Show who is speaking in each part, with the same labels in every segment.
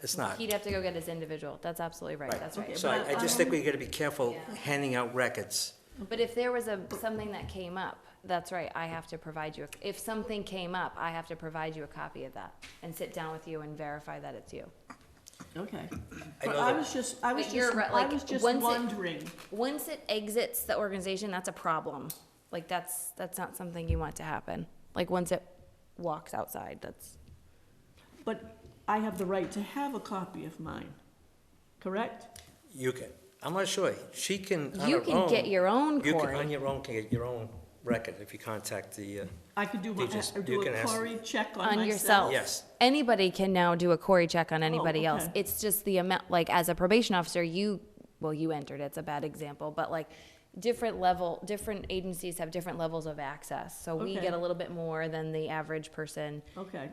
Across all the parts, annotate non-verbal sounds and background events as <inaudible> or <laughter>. Speaker 1: it's not.
Speaker 2: He'd have to go get his individual. That's absolutely right.
Speaker 1: Right.
Speaker 2: That's right.
Speaker 1: So I, I just think we gotta be careful
Speaker 2: Yeah.
Speaker 1: handing out records.
Speaker 2: But if there was a, something that came up, that's right, I have to provide you, a- if something came up, I have to provide you a copy of that and sit down with you and verify that it's you.
Speaker 3: Okay.
Speaker 1: I
Speaker 3: But
Speaker 1: know
Speaker 3: I
Speaker 1: that-
Speaker 3: was just, I was
Speaker 2: But you're
Speaker 3: just,
Speaker 2: right,
Speaker 3: I
Speaker 2: like,
Speaker 3: was just
Speaker 2: once it-
Speaker 3: wondering.
Speaker 2: Once it exits the organization, that's a problem. Like, that's, that's not something you want to happen. Like, once it walks outside, that's,
Speaker 3: But I have the right to have a copy of mine, correct?
Speaker 1: You can, I'm not sure, she can, on
Speaker 2: you
Speaker 1: her
Speaker 2: can get
Speaker 1: own-
Speaker 2: your own,
Speaker 1: You can, on
Speaker 2: Corey.
Speaker 1: your own, can get your own record if you contact the, uh,
Speaker 3: I could do, my-
Speaker 1: You just-
Speaker 3: I
Speaker 1: you
Speaker 3: do
Speaker 1: can
Speaker 3: a
Speaker 1: ask-
Speaker 3: query check on myself.
Speaker 2: On Oh, yourself.
Speaker 1: Yes.
Speaker 2: Anybody can now do a Corey check on anybody else.
Speaker 3: okay.
Speaker 2: It's just the amount, like, as a probation officer, you, well, you entered, it's a bad example, but like, different level, different agencies have different levels of access. So we
Speaker 3: Okay.
Speaker 2: get a little bit more than the average person.
Speaker 3: Okay,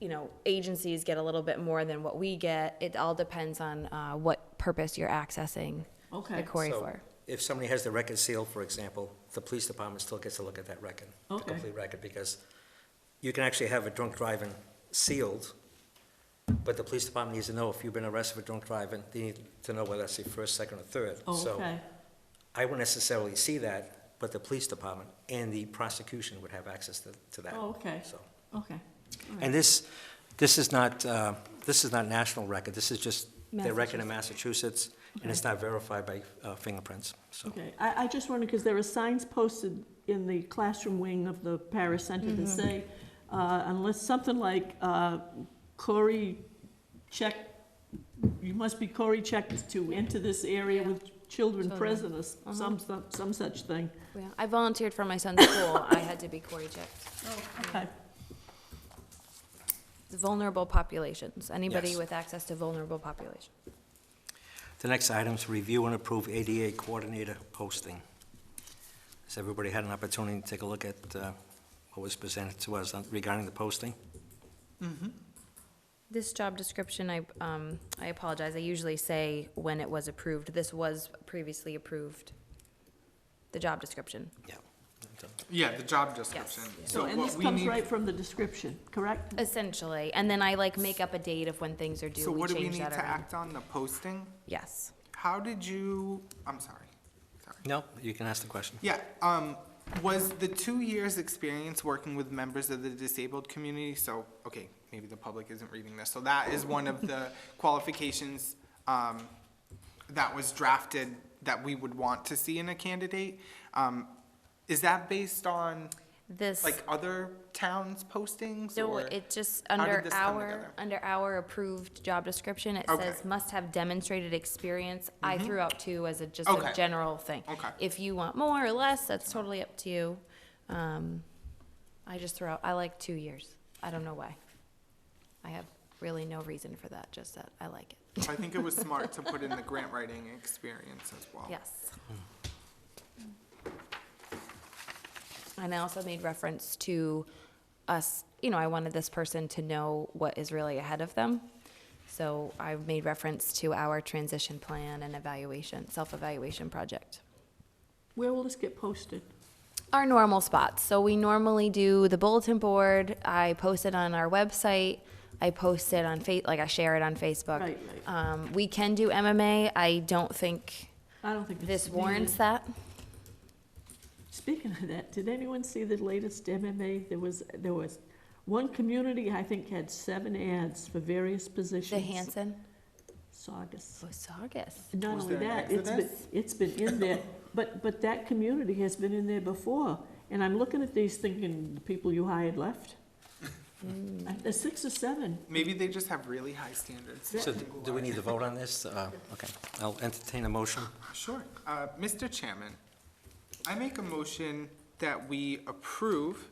Speaker 2: You know, agencies get a little bit more than what we get. It all depends on, uh, what purpose you're accessing the
Speaker 3: okay,
Speaker 2: Corey
Speaker 1: so
Speaker 2: for.
Speaker 1: If somebody has the record sealed, for example, the police department still gets to look at that record, the
Speaker 3: Okay.
Speaker 1: complete record, because you can actually have a drunk driving sealed, but the police department needs to know if you've been arrested for drunk driving, they need to know whether that's the first, second, or third. So
Speaker 3: Oh, okay,
Speaker 1: I wouldn't necessarily see that, but the police department and the prosecution would have access to, to that.
Speaker 3: Oh, okay.
Speaker 1: So,
Speaker 3: okay.
Speaker 1: and this, this is not, uh, this is not national record, this is just their record in
Speaker 2: Massachusetts.
Speaker 1: Massachusetts, and it's not verified by uh, fingerprints, so.
Speaker 3: Okay, I, I just wondered, because there are signs posted in the classroom wing of the Paris Center that say, uh, unless something like, uh, Cory check, you must be Cory checked to enter this area with children
Speaker 2: Children.
Speaker 3: present, or s- some, some, some such thing.
Speaker 2: Yeah, I volunteered for my son's school. I had to be Cory checked.
Speaker 3: Oh, Okay,
Speaker 2: Vulnerable populations, anybody
Speaker 1: Yes.
Speaker 2: with access to vulnerable population.
Speaker 1: The next item is review and approve ADA coordinator posting. Has everybody had an opportunity to take a look at uh, what was presented to us on- regarding the posting?
Speaker 2: This job description, I, um, I apologize, I usually say when it was approved. This was previously approved, the job description.
Speaker 1: Yeah.
Speaker 4: Yeah, the job description.
Speaker 3: so, and
Speaker 4: what
Speaker 3: this
Speaker 4: we
Speaker 3: comes
Speaker 4: need-
Speaker 3: right from the description, correct?
Speaker 2: Essentially, and then I like make up a date of when things are due,
Speaker 4: So
Speaker 2: we
Speaker 4: what do we
Speaker 2: change
Speaker 4: need
Speaker 2: that
Speaker 4: to
Speaker 2: around.
Speaker 4: act on, the posting?
Speaker 2: Yes.
Speaker 4: How did you, I'm sorry, sorry.
Speaker 1: No, you can ask the question.
Speaker 4: Yeah, um, was the two years' experience working with members of the disabled community, so, okay, maybe the public isn't reading this, so that is one of
Speaker 2: <laughs>
Speaker 4: the qualifications, um, that was drafted that we would want to see in a candidate. Um, is that based on,
Speaker 2: This,
Speaker 4: like, other towns' postings,
Speaker 2: no,
Speaker 4: or?
Speaker 2: it just,
Speaker 4: did
Speaker 2: under
Speaker 4: this come
Speaker 2: our,
Speaker 4: together?
Speaker 2: under our approved job description, it
Speaker 4: Okay. Mm-hmm.
Speaker 2: says must have demonstrated experience. I threw out two as a, just a
Speaker 4: Okay.
Speaker 2: general thing.
Speaker 4: Okay.
Speaker 2: If you want more or less, that's totally up to you. Um, I just throw out, I like two years. I don't know why. I have really no reason for that, just that I like it.
Speaker 4: I think it was smart to put in the grant writing experience as well.
Speaker 2: Yes. And I also made reference to us, you know, I wanted this person to know what is really ahead of them. So I made reference to our transition plan and evaluation, self-evaluation project.
Speaker 3: Where will this get posted?
Speaker 2: Our normal spots. So we normally do the bulletin board. I post it on our website. I post it on Fa- like I share it on Facebook.
Speaker 3: Right, right.
Speaker 2: Um, we can do MMA. I don't think
Speaker 3: I don't think it's
Speaker 2: this
Speaker 3: needed.
Speaker 2: warrants that.
Speaker 3: Speaking of that, did anyone see the latest MMA? There was, there was, one community, I think, had seven ads for various positions.
Speaker 2: The Hanson.
Speaker 3: Saugus.
Speaker 2: Saugus.
Speaker 3: Not
Speaker 4: Was
Speaker 3: only
Speaker 4: there an
Speaker 3: that, it's been,
Speaker 4: exodus?
Speaker 3: it's been in there, <laughs> but, but that community has been in there before. And I'm looking at these thinking, the people you hired left. Uh, There's six or seven.
Speaker 4: Maybe they just have really high standards.
Speaker 1: So do we need to vote on this? Uh, Okay, I'll entertain a motion.
Speaker 4: Sure. Uh, Mr. Chairman, I make a motion that we approve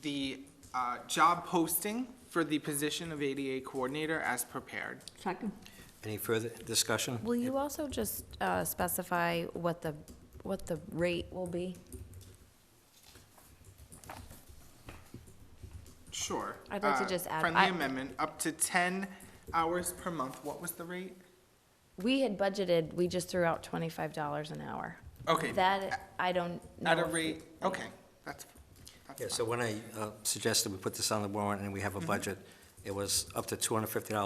Speaker 4: the uh, job posting for the position of ADA coordinator as prepared.
Speaker 3: Second.
Speaker 1: Any further discussion?
Speaker 2: Will you also just uh, specify what the, what the rate will be?
Speaker 4: Sure.
Speaker 2: I'd like to
Speaker 4: Uh,
Speaker 2: just add- I-
Speaker 4: Friendly amendment, up to 10 hours per month. What was the rate?
Speaker 2: We had budgeted, we just threw out twenty-five dollars an hour.
Speaker 4: Okay.
Speaker 2: That, I don't know.
Speaker 4: At a
Speaker 2: if-
Speaker 4: rate, okay, that's,
Speaker 1: Yeah,
Speaker 4: that's
Speaker 1: so
Speaker 4: fine.
Speaker 1: when I uh, suggested we put this on the warrant and we have a budget, it was up to $250